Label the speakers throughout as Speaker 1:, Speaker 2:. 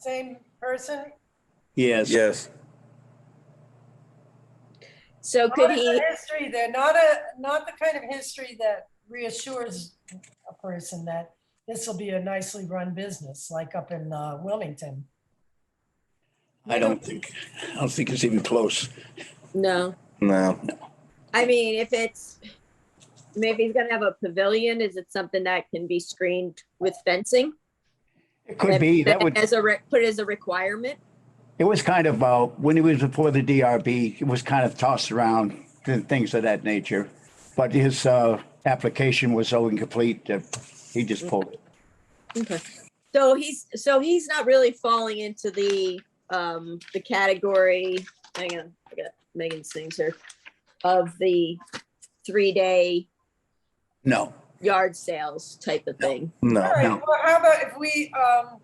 Speaker 1: same person?
Speaker 2: Yes.
Speaker 3: Yes, Oh,
Speaker 4: So
Speaker 1: Not
Speaker 4: could
Speaker 1: the
Speaker 4: he,
Speaker 1: History, they're not a, not the kind of history that reassures a person that this will be a nicely run business, like up in uh, Wilmington.
Speaker 2: I don't think, I don't think it's even close.
Speaker 4: no,
Speaker 3: no,
Speaker 4: I mean, if it's, I mean, if he's gonna have a pavilion, is it something that can be screened with fencing?
Speaker 2: It could be, that would,
Speaker 4: As a, re- put as a requirement?
Speaker 2: it was kind of, uh, when it was before the DRB, it was kind of tossed around and things of that nature. But his, uh, application was so incomplete that he just pulled it.
Speaker 4: Okay. So he's, so he's not really falling into the, um, the category, hang on, I got Megan's things here, of the three-day
Speaker 2: No,
Speaker 4: yard sales type of thing.
Speaker 1: All
Speaker 3: no.
Speaker 2: no.
Speaker 1: right, well, how about if we, um,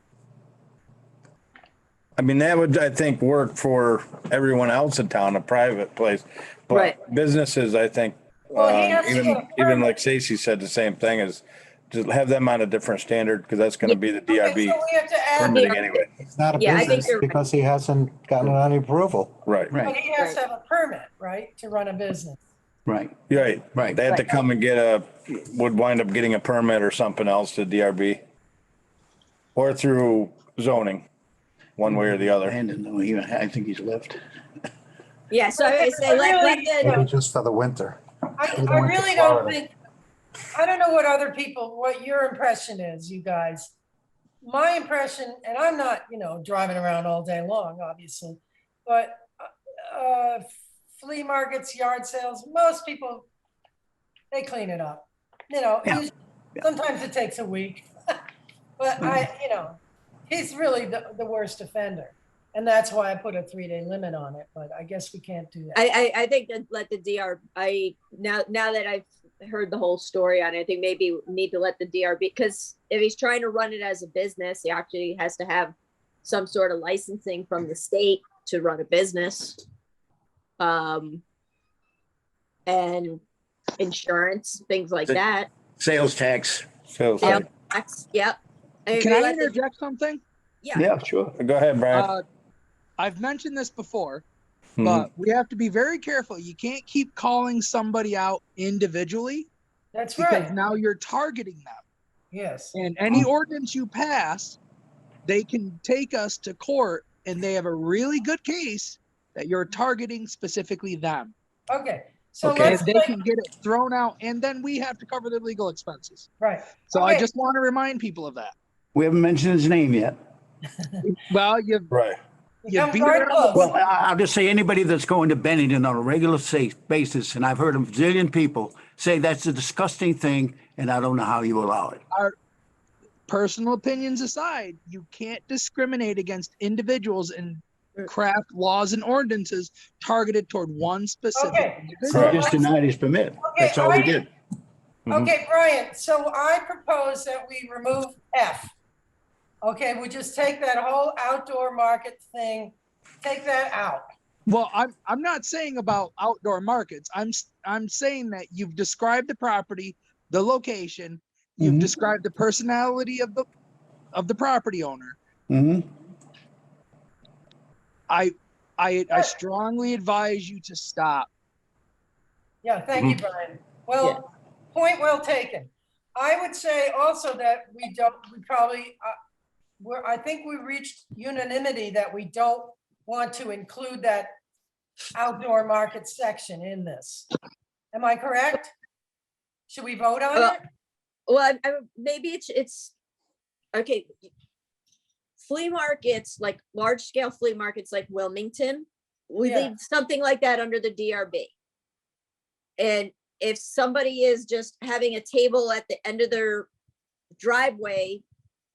Speaker 3: I mean, that would, I think, work for everyone else in town, a private place. But
Speaker 4: Right.
Speaker 3: businesses, I think,
Speaker 1: Well, he
Speaker 3: um,
Speaker 1: has to get a
Speaker 3: even, even like Stacy said, the same thing is just have them on a different standard because that's going to be the
Speaker 1: okay,
Speaker 3: DRB
Speaker 1: so we have to add,
Speaker 3: permitting anyway.
Speaker 5: It's not a
Speaker 4: Yeah, I think
Speaker 5: business
Speaker 4: you're right.
Speaker 5: because he hasn't gotten any approval.
Speaker 3: Right,
Speaker 1: but
Speaker 2: Right,
Speaker 1: he has to have a permit, right, to run a business?
Speaker 2: right,
Speaker 3: right.
Speaker 2: right.
Speaker 3: They have to come and get a, would wind up getting a permit or something else to DRB. Or through zoning, one way or the other.
Speaker 2: Brandon, no, uh, he, I think he's left.
Speaker 4: Yeah, so I would say let, let the,
Speaker 5: Maybe just for the winter.
Speaker 1: I,
Speaker 5: We
Speaker 1: I
Speaker 5: want to
Speaker 1: really don't
Speaker 5: follow.
Speaker 1: think, I don't know what other people, what your impression is, you guys. My impression, and I'm not, you know, driving around all day long, obviously, but uh, flea markets, yard sales, most people, they clean it up. You know,
Speaker 2: Yeah. Mm-hmm.
Speaker 1: usually- sometimes it takes a week. But I, you know, he's really the, the worst offender. And that's why I put a three-day limit on it, but I guess we can't do that.
Speaker 4: I, I, I think that let the DR, I, now, now that I've heard the whole story on it, I think maybe we need to let the DRB, because if he's trying to run it as a business, he actually has to have some sort of licensing from the state to run a business. Um, and insurance, things like
Speaker 2: The-
Speaker 4: that.
Speaker 2: Sales tax.
Speaker 3: So, it's
Speaker 4: Yeah.
Speaker 3: like-
Speaker 4: That's- Yep. I
Speaker 6: Can
Speaker 4: agree,
Speaker 6: I
Speaker 4: let the-
Speaker 6: interject something?
Speaker 4: Yeah,
Speaker 2: Yeah, sure.
Speaker 3: go ahead, Brian.
Speaker 6: Uh, I've mentioned this before,
Speaker 3: Mhm.
Speaker 6: but we have to be very careful. You can't keep calling somebody out individually
Speaker 1: That's
Speaker 6: because
Speaker 1: right,
Speaker 6: now you're targeting them.
Speaker 1: yes.
Speaker 6: And any ordinance you pass, they can take us to court and they have a really good case that you're targeting specifically them.
Speaker 1: Okay, so
Speaker 2: Okay.
Speaker 6: And
Speaker 1: let's,
Speaker 6: they
Speaker 1: make-
Speaker 6: can get it thrown out and then we have to cover the legal expenses.
Speaker 1: right,
Speaker 6: So I
Speaker 1: Okay.
Speaker 6: just want to remind people of that.
Speaker 2: We haven't mentioned his name yet.
Speaker 6: Well, you've
Speaker 3: Right.
Speaker 6: You
Speaker 1: become
Speaker 6: beat
Speaker 1: guard
Speaker 6: it up.
Speaker 2: Well,
Speaker 1: close.
Speaker 2: I- I'll just say, anybody that's going to Bennington on a regular sa- basis, and I've heard a zillion people say that's a disgusting thing, and I don't know how you allow it.
Speaker 6: personal opinions aside, you can't discriminate against individuals and craft laws and ordinances targeted toward one specific.
Speaker 1: Okay,
Speaker 6: individual.
Speaker 2: They just denied his permit. That's all we did.
Speaker 3: Mhm.
Speaker 6: mm-hmm.
Speaker 1: Okay, Brian, so I propose that we remove F. Okay, we just take that whole outdoor market thing, take that out.
Speaker 6: Well, I'm I'm not saying about outdoor markets. I'm s- I'm saying that you've described the property, the location, you've
Speaker 2: Mhm.
Speaker 6: described the personality of the of the property owner.
Speaker 2: hmm
Speaker 6: I I
Speaker 1: Sure.
Speaker 6: I strongly advise you to stop.
Speaker 1: Yeah, thank you, Brian. Well, point well taken. I would say also that we don't, we probably, uh, we're, I think we reached unanimity that we don't want to include that outdoor market section in this. Am I correct? Should we vote on
Speaker 4: Well,
Speaker 1: it?
Speaker 4: Well, I, I, maybe it's, it's, okay. Flea markets, like large scale flea markets like Wilmington, we
Speaker 1: Yeah.
Speaker 4: leave something like that under the DRB. And if somebody is just having a table at the end of their driveway,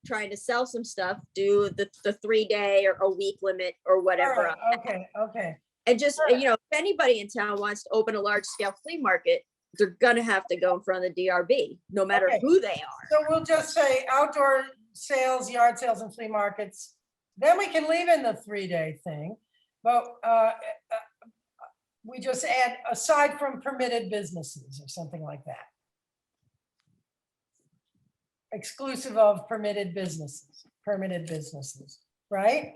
Speaker 4: trying to sell some stuff, do the, the three day or a week limit or whatever.
Speaker 1: Alright, Okay, okay.
Speaker 4: And just,
Speaker 1: Sure.
Speaker 4: you know, if anybody in town wants to open a large scale flea market, they're gonna have to go in front of the DRB, no matter
Speaker 1: Okay.
Speaker 4: who they are.
Speaker 1: So we'll just say outdoor sales, yard sales and flea markets. Then we can leave in the three-day thing, but uh, uh, we just add aside from permitted businesses or something like that. Exclusive of permitted businesses, permitted businesses. right?